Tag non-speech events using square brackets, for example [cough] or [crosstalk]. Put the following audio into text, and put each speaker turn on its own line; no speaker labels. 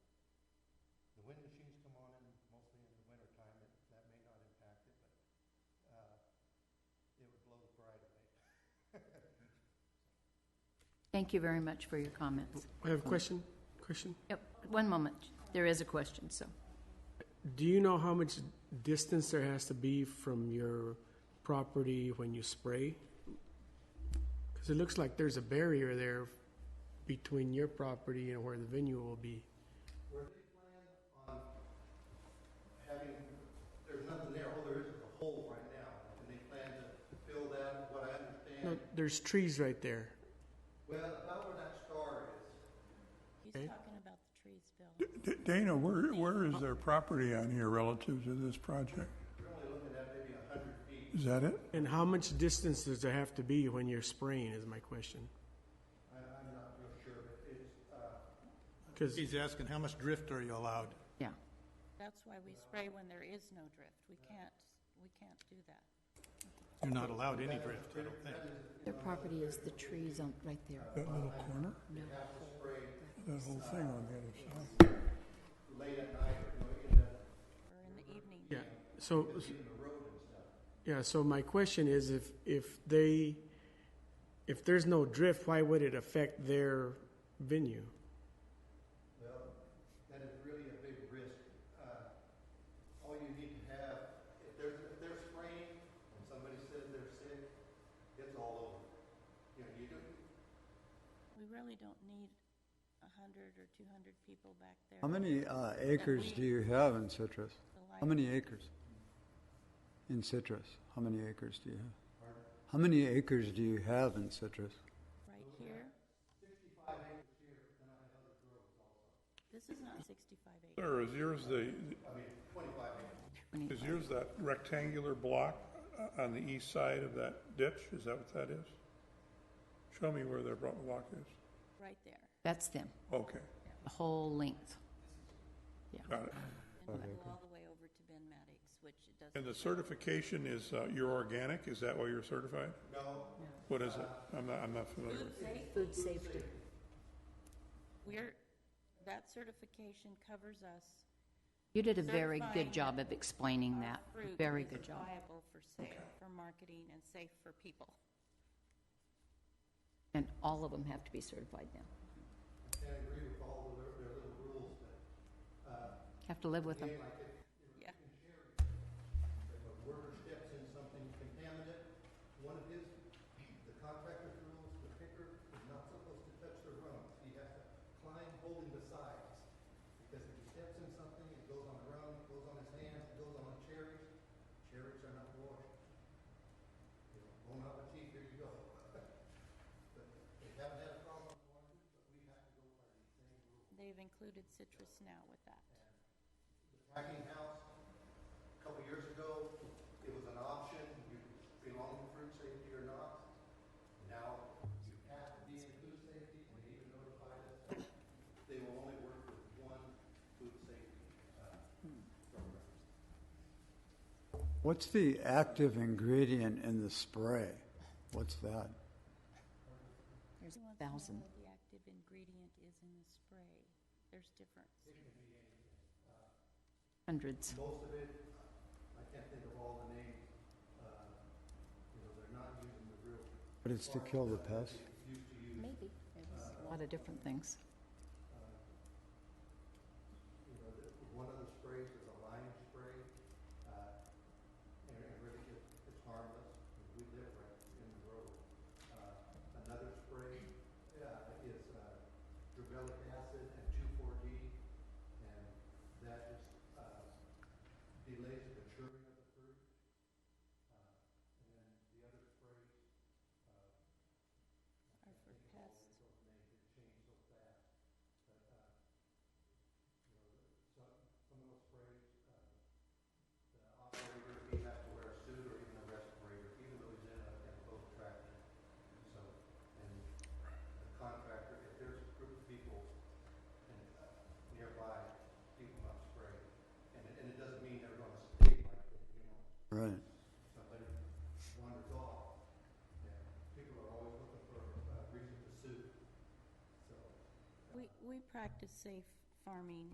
Thank you very much for your comments.
I have a question. Question.
Yep, one moment. There is a question, so.
Do you know how much distance there has to be from your property when you spray? Because it looks like there's a barrier there between your property and where the venue will be.
Were they planning on having, there's nothing there, all there is is a hole right now, and they plan to fill that, what I
No,
understand.
there's trees right there.
Well, about where that star is,
He's
Okay.
talking about the trees, Bill.
D- Dana, where, where is their property on here relative to this project?
you're only looking at maybe a hundred feet.
Is that it?
And how much distance does there have to be when you're spraying is my question.
I, I'm not real sure, but it's, uh,
Because
He's asking, how much drift are you allowed?
Yeah,
That's why we spray when there is no drift. We can't, we can't do that.
You're not allowed any drift, I don't think.
Their property is the trees on, right there.
That little corner?
No.
That whole thing on the other side?
late at night, or, you know, in the,
Or in the evening.
Yeah, so,
in the road and stuff.
yeah, so my question is if, if they, if there's no drift, why would it affect their venue?
Well, that is really a big risk. Uh, All you need to have, if there's, if they're spraying, and somebody says they're sick, it's all over. You know, you do,
We really don't need a hundred or two hundred people back there.
How many uh, acres do you have in citrus?
The
How
light-
many acres? In citrus, how many acres do you have? How many acres do you have in citrus?
Right here. This is not sixty-five acres.
Sir, is yours the,
when he-
is yours that rectangular block uh, on the east side of that ditch? Is that what that is? Show me where their bro- block is.
right there.
that's them,
Okay,
the whole length.
got it.
And we go all the way over to Ben Maddox, which it doesn't.
And the certification is, uh, you're organic? Is that why you're certified? No. What is it? I'm not, I'm not familiar. with it.
Food safety.
We're, that certification covers us.
You did a very good
Certifying
job of explaining
our
that,
fruit
very
is
good job.
Viable for sale, for marketing and safe for people.
And all of them have to be certified now.
can't agree with all of their, their little rules, but, uh,
Have to live with them.
like if,
Yeah.
if a worker steps in something contaminated, one of his, the contractor's rules, the picker is not supposed to touch the rungs. He has to climb holding the sides. Because if he steps in something, it goes on the rung, it goes on his hands, it goes on the cherries. Cherries are not washed. You know, bon appetit, here you go. But [laughs] they haven't had a problem with oranges, but we have to go by the same rules.
They've included citrus now with that.
packing house, a couple years ago, it was an option, you belong to food safety or not. Now, you have to be in food safety, and they even notified us, they will only work with one food safety, uh, program.
What's the active ingredient in the spray? What's that?
There's
Who
a
wants to know
thousand.
what The active ingredient is in the spray. There's difference.
Hundreds.
Most of it, I can't think of all the names, uh, you know, they're not using the real,
But it's to kill the pests?
used to use,
Maybe. A lot of different things.
you know, the, one of the sprays is a lime spray, uh, and it really is, it's harmless, and we live right in the road. Uh, another spray, uh, is, uh, drivelic acid and two-four-D, and that just, uh, delays the maturing of the fruit. Uh, and then the other sprays, uh,
Are for pests.
uh, uh, operator, he has to wear a suit or even a respirator, even though he's in a, in a boat tractor. So, and the contractor, if there's a group of people and, uh, nearby, he will not spray. And, it- and it doesn't mean they're gonna stay like, that, you know,
Right.
somebody wanders off. Yeah, people are always looking for uh, a reason to sue, so.
We, we practice safe farming